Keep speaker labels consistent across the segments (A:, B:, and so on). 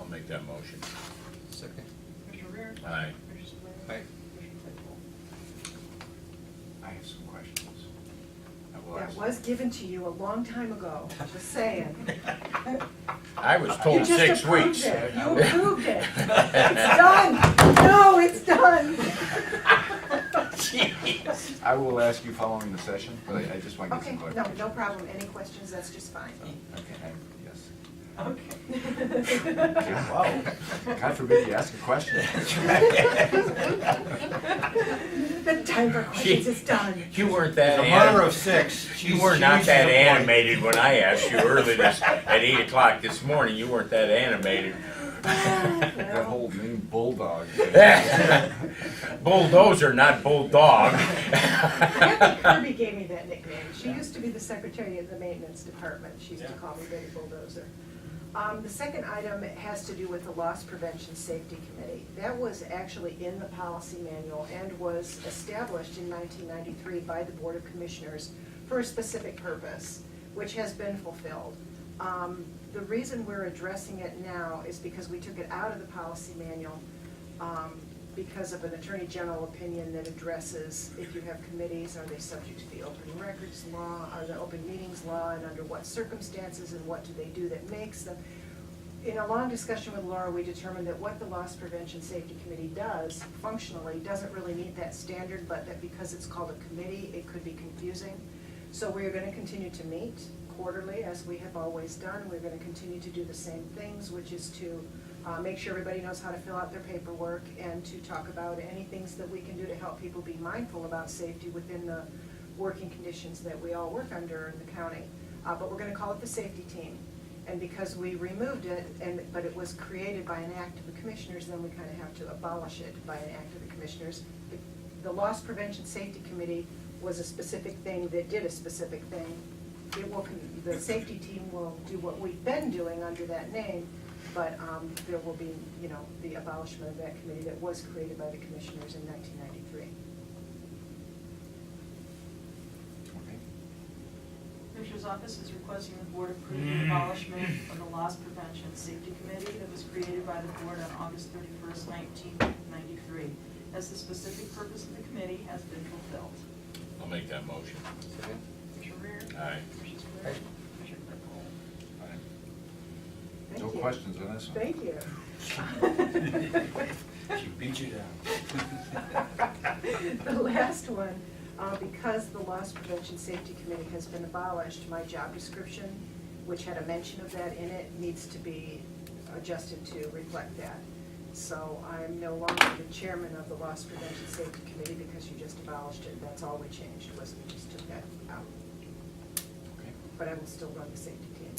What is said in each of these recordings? A: I'll make that motion.
B: Second.
C: Commissioner Rea?
A: Aye.
C: Commissioner Spillier?
B: Aye.
C: Commissioner Claypool?
A: I have some questions. I
D: That was given to you a long time ago, just saying.
A: I was told
D: You just
A: six
D: approved
A: weeks.
D: it. You approved it. It's done. No, it's done.
E: I will ask you following the session, but I I just want to get
D: Okay, no,
E: some clarification.
D: no problem. Any questions, that's just fine.
E: Oh, Okay, I- yes.
D: Okay.
E: Wow, God forbid you ask a question.
D: The time for questions is done.
A: You weren't that
F: A murder of
A: animated.
F: six.
A: You
F: She's-
A: were not
F: she's
A: that
F: to the point.
A: animated when I asked you early this, at eight o'clock this morning, you weren't that animated.
E: That whole mean bulldog.
A: Bulldozer, not bulldog.
D: Kathy Kirby gave me that nickname. She used to be the secretary of the maintenance department. She used to call me Betty Bulldozer. Um, The second item has to do with the Loss Prevention Safety Committee. That was actually in the policy manual and was established in 1993 by the Board of Commissioners for a specific purpose, which has been fulfilled. Um, The reason we're addressing it now is because we took it out of the policy manual um, because of an attorney general opinion that addresses if you have committees, are they subject to the open records law, are the open meetings law, and under what circumstances, and what do they do that makes them? In a long discussion with Laura, we determined that what the Loss Prevention Safety Committee does functionally doesn't really meet that standard, but that because it's called a committee, it could be confusing. So we are gonna continue to meet quarterly, as we have always done. We're gonna continue to do the same things, which is to uh, make sure everybody knows how to fill out their paperwork and to talk about any things that we can do to help people be mindful about safety within the working conditions that we all work under in the county. Uh, But we're gonna call it the safety team. And because we removed it, and, but it was created by an act of the commissioners, then we kind of have to abolish it by an act of the commissioners. The- The Loss Prevention Safety Committee was a specific thing that did a specific thing. It will, con- the safety team will do what we've been doing under that name, but um, there will be, you know, the abolishment of that committee that was created by the commissioners in nineteen ninety-three.
C: Commissioner's office is requesting the board approve the abolishment of the loss prevention safety committee that was created by the board on August thirty-first, nineteen ninety-three, as the specific purpose of the committee has been fulfilled.
A: I'll make that motion.
B: Second.
C: Commissioner Rea?
A: Aye.
C: Commissioner Spillier?
B: Aye.
C: Commissioner Claypool?
D: Thank
E: No
D: you.
E: questions on this one?
D: Thank you.
F: She beat you down.
D: The last one, uh, because the Loss Prevention Safety Committee has been abolished, my job description, which had a mention of that in it, needs to be adjusted to reflect that. So I'm no longer the chairman of the Loss Prevention Safety Committee because you just abolished it. That's all we changed, was we just took that out.
E: Okay.
D: But I will still run the safety team.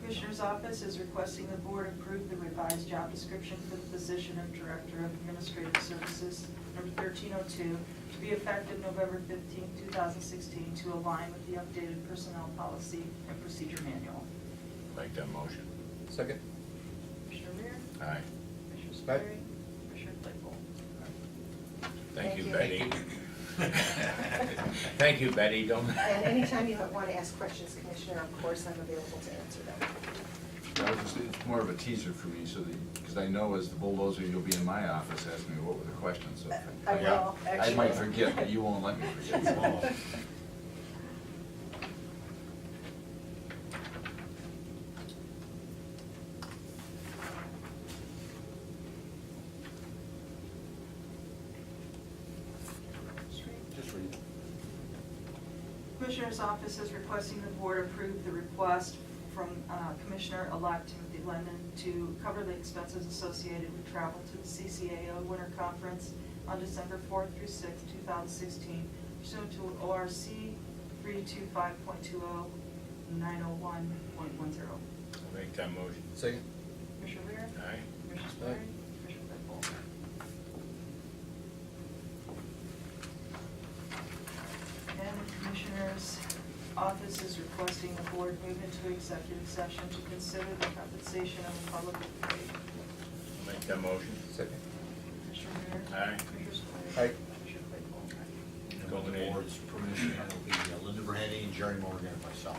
C: Commissioner's office is requesting the board approve the revised job description for the position of Director of Administrative Services, number 1302, to be effective November 15, 2016, to align with the updated personnel policy and procedure manual.
A: Make that motion.
B: Second.
C: Commissioner Rea?
A: Aye.
C: Commissioner
B: Aye.
C: Spillier? Commissioner Claypool?
A: Thank you,
D: Thank
A: Betty. Thank you, Betty. Don't.
D: And anytime you want to ask questions, Commissioner, of course, I'm available to answer them.
E: That was just, it's more of a teaser for me, so that, because I know as the bulldozer, you'll be in my office asking me what were the questions, so. if
D: I will,
E: I might
D: actually.
E: forget, but you won't let me forget.
F: Just read it.
C: Commissioner's office is requesting the board approve the request from uh, Commissioner-elect Timothy Lennon to cover the expenses associated with travel to the CCAO Winter Conference on December 4th through 6th, 2016 pursuant to ORC 325.20, 901.10.
A: I'll Make that motion.
B: Second.
C: Commissioner Rea?
A: Aye.
C: Commissioner
B: Aye.
C: Spillier? Commissioner Claypool? And the Commissioner's office is requesting the board move into executive session to consider the compensation of a public employee.
A: I'll Make that motion.
B: Second.
C: Commissioner Rea?
A: Aye.
C: Commissioner Spillier?
B: Aye.
C: Commissioner Claypool?
F: And With the board's permission, it'll be Linda Verheyen, uh, Jerry Morgan, and myself.